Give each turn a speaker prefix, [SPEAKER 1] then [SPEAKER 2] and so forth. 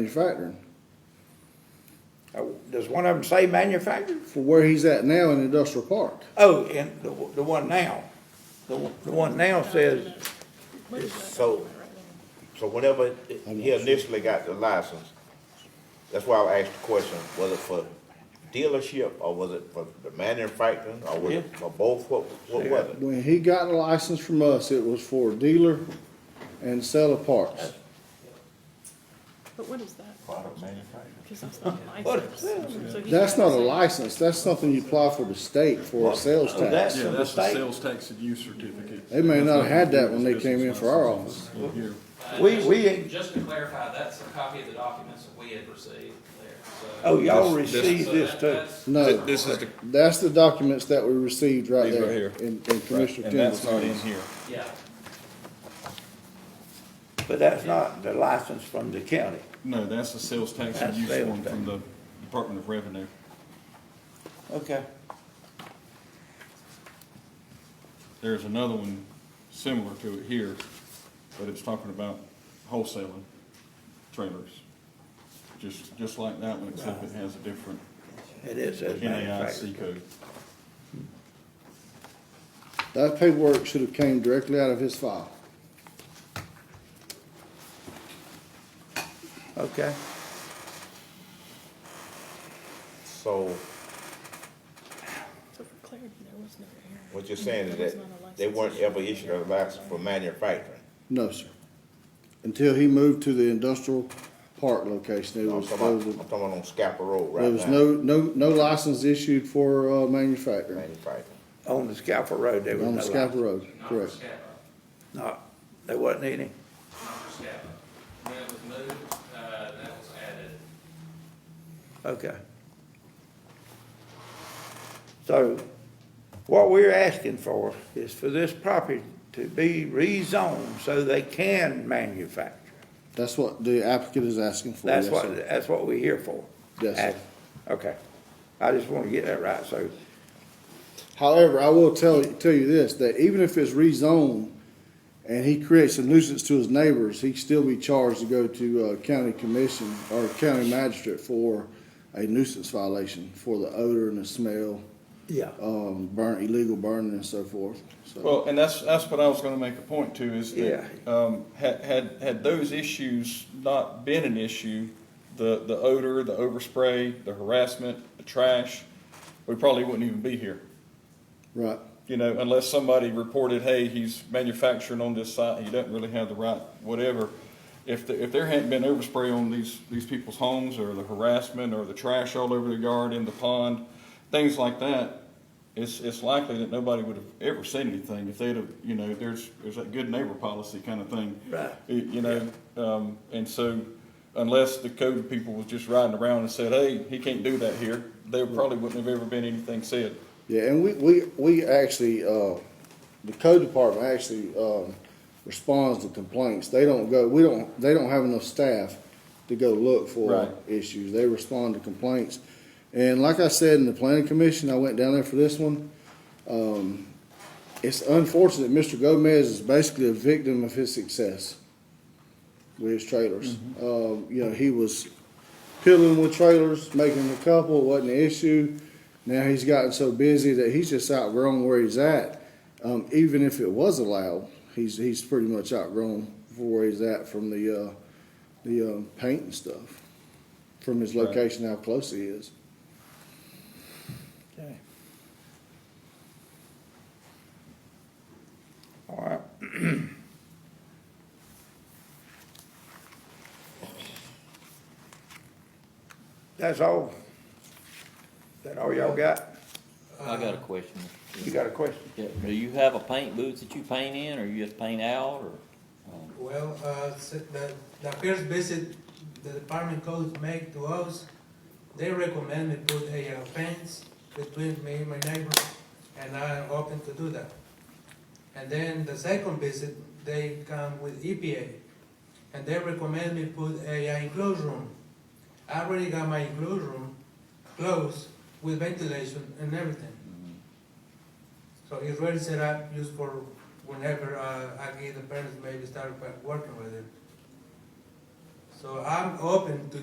[SPEAKER 1] manufacturing
[SPEAKER 2] Uh, Does one of them say manufactured?
[SPEAKER 1] for where he's at now in industrial park.
[SPEAKER 2] Oh, and the, the one now, the, one- the one now says,
[SPEAKER 3] So, so whenever he initially got the license, that's why I asked the question, was it for dealership or was it for the manufacturing or was it
[SPEAKER 2] Yeah.
[SPEAKER 3] for both? What, what was it?
[SPEAKER 1] When he got a license from us, it was for dealer and seller parts.
[SPEAKER 4] But what is that?
[SPEAKER 3] Product manufacturing.
[SPEAKER 4] Because that's not a
[SPEAKER 2] What
[SPEAKER 4] license.
[SPEAKER 2] is that?
[SPEAKER 4] So he
[SPEAKER 1] That's
[SPEAKER 4] can't
[SPEAKER 1] not a
[SPEAKER 4] say-
[SPEAKER 1] license, that's something you apply for the state for a sales
[SPEAKER 2] Oh, that's
[SPEAKER 1] tax.
[SPEAKER 5] Yeah,
[SPEAKER 2] from the
[SPEAKER 5] that's the
[SPEAKER 2] state.
[SPEAKER 5] sales tax and use certificate.
[SPEAKER 1] They may not have had that when they came in for our office.
[SPEAKER 5] Here.
[SPEAKER 2] We- we ain't-
[SPEAKER 6] Uh, Just to clarify, that's a copy of the documents that we had received there, so.
[SPEAKER 2] Oh, y'all
[SPEAKER 7] This- this-
[SPEAKER 2] received this too.
[SPEAKER 1] No,
[SPEAKER 7] This is the,
[SPEAKER 1] that's the documents that we received right
[SPEAKER 7] These right
[SPEAKER 1] there
[SPEAKER 7] here.
[SPEAKER 1] in, in Commissioner
[SPEAKER 7] and that's
[SPEAKER 1] Kendall's.
[SPEAKER 7] not in
[SPEAKER 1] hands.
[SPEAKER 7] here.
[SPEAKER 6] Yeah,
[SPEAKER 2] But that's not the license from the county.
[SPEAKER 5] No, that's the sales tax and
[SPEAKER 2] That's
[SPEAKER 5] use
[SPEAKER 2] sales
[SPEAKER 5] form
[SPEAKER 2] tax.
[SPEAKER 5] from the Department of Revenue.
[SPEAKER 2] Okay.
[SPEAKER 5] There's another one similar to it here, but it's talking about wholesaling trailers. Just, just like that one, except it has a different
[SPEAKER 2] It is says manufactured.
[SPEAKER 5] NAIC code.
[SPEAKER 1] That paperwork should have came directly out of his file.
[SPEAKER 2] Okay.
[SPEAKER 3] So
[SPEAKER 4] So for clarity, there was no error.
[SPEAKER 3] what you're saying is
[SPEAKER 4] There was not a
[SPEAKER 3] that
[SPEAKER 4] license
[SPEAKER 3] they weren't
[SPEAKER 4] issue.
[SPEAKER 3] ever issued a license for manufacturing?
[SPEAKER 1] No, sir. Until he moved to the industrial park location, it
[SPEAKER 3] I'm
[SPEAKER 1] was,
[SPEAKER 3] talking
[SPEAKER 1] there was
[SPEAKER 3] about,
[SPEAKER 1] a
[SPEAKER 3] I'm talking about on Scapa Road right now.
[SPEAKER 1] There was no, no, no license issued for, uh, manufacturing
[SPEAKER 3] Manufacturing.
[SPEAKER 2] On the Scalper Road, there was no
[SPEAKER 1] on the Scapa
[SPEAKER 2] license.
[SPEAKER 1] Road,
[SPEAKER 6] not for
[SPEAKER 1] correct.
[SPEAKER 6] SCAPA,
[SPEAKER 2] No, there wasn't any.
[SPEAKER 6] not for SCAPA. When it was moved, uh, that was added.
[SPEAKER 2] Okay. So what we're asking for is for this property to be rezoned so they can manufacture.
[SPEAKER 1] That's what the applicant is asking for.
[SPEAKER 2] That's
[SPEAKER 1] yes,
[SPEAKER 2] what,
[SPEAKER 1] sir.
[SPEAKER 2] that's what we're here for.
[SPEAKER 1] Yes, sir.
[SPEAKER 2] Okay. I just want to get that right, so,
[SPEAKER 1] However, I will tell, tell you this, that even if it's rezoned and he creates a nuisance to his neighbors, he'd still be charged to go to, uh, county commission or county magistrate for a nuisance violation for the odor and the smell,
[SPEAKER 2] yeah.
[SPEAKER 1] um, burn, illegal burning and so forth, so.
[SPEAKER 5] Well, and that's, that's what I was gonna make a point to, is
[SPEAKER 2] Yeah.
[SPEAKER 5] that, um, had, had, had those issues not been an issue, the, the odor, the overspray, the harassment, the trash, we probably wouldn't even be here.
[SPEAKER 1] Right,
[SPEAKER 5] You know, unless somebody reported, hey, he's manufacturing on this site, he doesn't really have the right, whatever. If, the- if there hadn't been overspray on these, these people's homes, or the harassment, or the trash all over the yard, in the pond, things like that, it's, it's likely that nobody would have ever said anything if they'd have, you know, there's, there's that good neighbor policy kind of thing.
[SPEAKER 2] Right.
[SPEAKER 5] You you know, um, and so unless the code people was just riding around and said, hey, he can't do that here, there probably wouldn't have ever been anything said.
[SPEAKER 1] Yeah, and we, we, we actually, uh, the code department actually, um, responds to complaints. They don't go, we don't, they don't have enough staff to go look
[SPEAKER 5] Right.
[SPEAKER 1] for issues. They respond to complaints. And like I said, in the planning commission, I went down there for this one. Um, it's unfortunate, Mr. Gomez is basically a victim of his success with his trailers. Um, you know, he was piddling with trailers, making a couple, wasn't an issue. Now he's gotten so busy that he's just outgrown where he's at. Um, even if it was allowed, he's he's pretty much outgrown where he's at from the uh, the um, paint and stuff, from his
[SPEAKER 5] Right.
[SPEAKER 1] location, how close he is.
[SPEAKER 2] Okay. All right. That's all? That all y'all got?
[SPEAKER 8] I got a question.
[SPEAKER 2] You got a question?
[SPEAKER 8] Yeah, Do you have a paint booth that you paint in, or you just paint out, or? um,
[SPEAKER 9] Well, uh, s- the, the first visit the department codes make to us, they recommend me put a uh, fence between me and my neighbor, and I'm open to do that. And then the second visit, they come with EPA, and they recommend me put a uh, enclosed room. I already got my enclosed room closed with ventilation and everything. So it's ready set up, used for whenever uh, I get the parents maybe start wo- working with it. So I'm open to